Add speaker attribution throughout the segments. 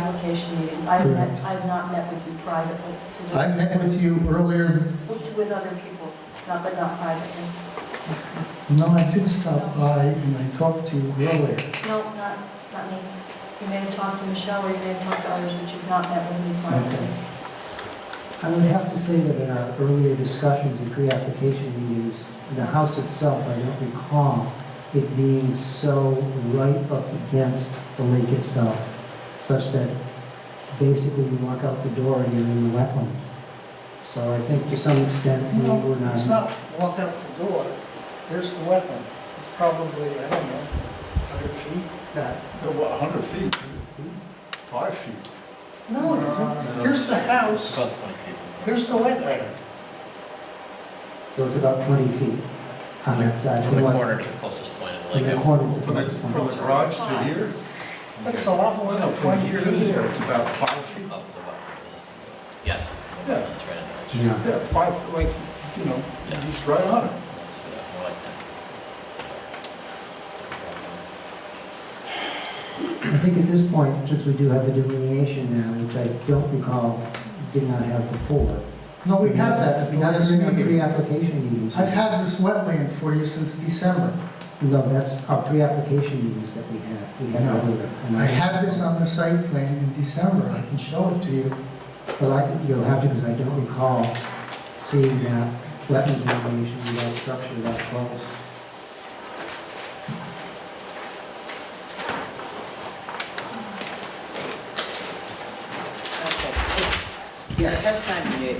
Speaker 1: pre-application meetings. I've met, I've not met with you privately. to do-
Speaker 2: I met with you earlier,
Speaker 1: With with other people, not, but not privately.
Speaker 2: no, I did stop by and I talked to you earlier.
Speaker 1: No, not, not me. You may have talked to Michelle, or you may have talked to others, but you've not met with me privately.
Speaker 2: Okay.
Speaker 3: I would have to say that in our earlier discussions and pre-application meetings, the house itself, I don't recall it being so right up against the lake itself, such that basically you walk out the door and you're in the wetland. So I think to some extent, we
Speaker 4: No,
Speaker 3: were not.
Speaker 4: it's not walk out the door, there's the wetland. It's probably, I don't know, 100 feet?
Speaker 3: that-
Speaker 5: No, what, 100 feet? 5 feet?
Speaker 4: No, it isn't. Uh, Here's the house,
Speaker 5: about 20 feet.
Speaker 4: here's the wetland.
Speaker 3: So it's about 20 feet on that side.
Speaker 6: From the corner to the closest point of the
Speaker 3: From
Speaker 6: lake.
Speaker 3: the corner to the
Speaker 5: From the,
Speaker 3: closest
Speaker 5: from the
Speaker 3: house.
Speaker 5: garage to here?
Speaker 4: That's a lot more
Speaker 5: Well,
Speaker 4: than
Speaker 5: no, from
Speaker 4: 20
Speaker 5: here to
Speaker 4: feet.
Speaker 5: there, it's about 5
Speaker 6: Oh, to
Speaker 5: feet.
Speaker 6: the wetland. This is the wetland. Yes,
Speaker 5: Yeah.
Speaker 6: that's right in the
Speaker 3: Yeah.
Speaker 6: ledge.
Speaker 5: Yeah, 5, like, you know,
Speaker 6: Yeah.
Speaker 5: it's right on it.
Speaker 6: That's uh, more like that. Sorry.
Speaker 3: I think at this point, since we do have the delineation now, which I don't recall, did not have before.
Speaker 2: No, we had that at the
Speaker 3: We had
Speaker 2: last
Speaker 3: it in our
Speaker 2: meeting.
Speaker 3: Pre-application meetings.
Speaker 2: I've had this wetland for you since December.
Speaker 3: No, that's our pre-application meetings that we had, we had
Speaker 2: No.
Speaker 3: earlier. And
Speaker 2: I had this on the site plan in December, I can show it to you.
Speaker 3: Well, I, think you'll have to, because I don't recall seeing that wetland delineation without structure that close.
Speaker 7: Yeah, that's not new.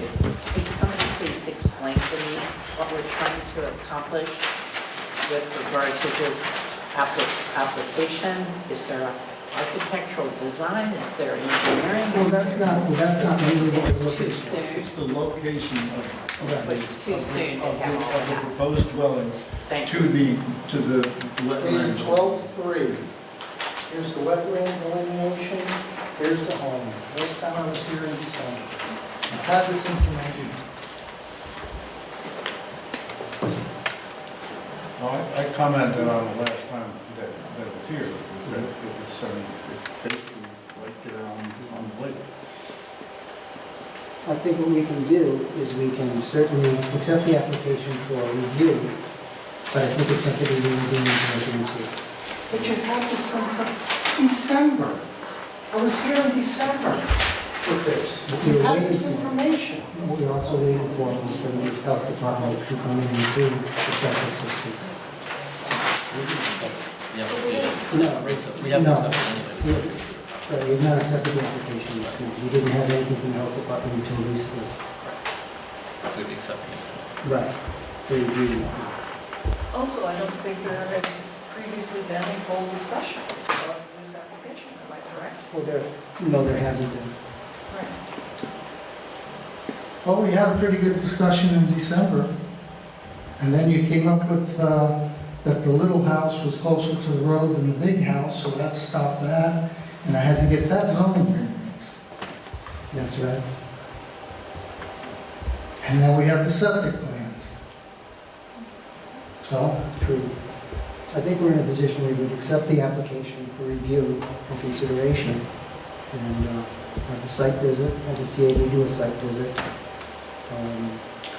Speaker 7: Could somebody please explain to me what we're trying to accomplish with regard to this appli- application? Is there architectural design? Is there engineering?
Speaker 3: Well, that's not, well, that's not really what
Speaker 7: It's
Speaker 3: we're looking
Speaker 7: too
Speaker 3: for.
Speaker 7: soon.
Speaker 5: It's the location of, of the,
Speaker 7: It's too
Speaker 5: of
Speaker 7: soon
Speaker 5: the-
Speaker 7: to
Speaker 5: of
Speaker 7: have
Speaker 5: the-
Speaker 7: all
Speaker 5: of the
Speaker 7: that.
Speaker 5: proposed dwelling
Speaker 7: Thank
Speaker 5: to the,
Speaker 7: you.
Speaker 5: to the
Speaker 4: Page
Speaker 5: wetland.
Speaker 4: 12-3, here's the wetland delineation, here's the home. Last time I was here in December. uh, I had this information.
Speaker 5: Well, I I commented on it last time that, that it was here, was that it was, um, it basically right there on, on the lake.
Speaker 3: I think what we can do is we can certainly accept the application for review, but I think it's something we really do need to look into.
Speaker 4: But you had this since December. I was here in December with this. You've had this information.
Speaker 3: We're also waiting for Mr. Health Department to come in and do the septic system.
Speaker 6: The application.
Speaker 3: No.
Speaker 6: Right, so We have to
Speaker 3: No.
Speaker 6: accept it anyway. We still have to approve it,
Speaker 3: So
Speaker 6: obviously.
Speaker 3: we've not accepted the application yet. We didn't have anything from the Health Department until recently.
Speaker 6: So we'd be accepting it. tonight.
Speaker 3: Right. For review.
Speaker 1: Also, I don't think there had previously been a full discussion of this application, am I correct?
Speaker 3: Well, there, no, there hasn't been.
Speaker 1: Right.
Speaker 2: Well, we had a pretty good discussion in December. And then you came up with, uh, that the little house was closer to the road than the big house, so that stopped that. And I had to get that zoning variance.
Speaker 3: That's right.
Speaker 2: And now we have the septic plans. So,
Speaker 3: True. I think we're in a position where we would accept the application for review and consideration and uh, have the site visit, have the CAB do a site visit. Um,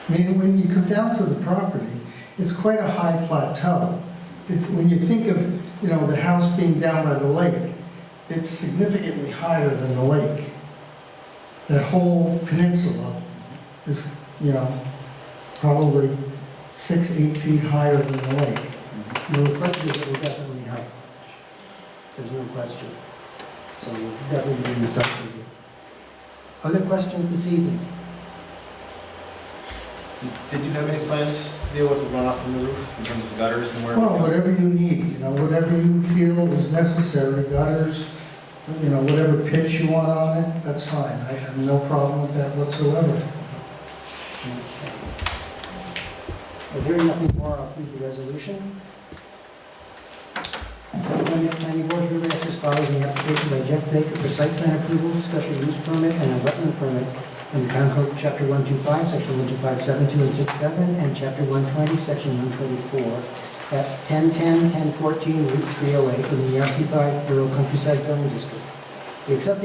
Speaker 2: I mean, when you come down to the property, it's quite a high plateau. It's, when you think of, you know, the house being down by the lake, it's significantly higher than the lake. That whole peninsula is, you know, probably six, eight feet higher than the lake.
Speaker 3: Well, the site visit will definitely help. There's no question. So we'll definitely bring the site visit. Other questions this evening?
Speaker 6: Did- Did you have any plans to deal with the runoff from the roof in terms of gutters and where?
Speaker 2: Well, whatever you need, you know, whatever you feel is necessary, gutters, you know, whatever pitch you want on it, that's fine. I have no problem with that whatsoever.
Speaker 3: Okay. Well, hearing nothing more, I'll read the resolution. When the planning board hearing this follows the application by Jeff Baker for site plan approval, special use permit, and a wetland permit in Concord Chapter 125, Section 12572 and 67, and Chapter 120, Section 124, at 1010, 1014, Route 308, in the RC5 Rural Countryside Zoning District. We accept the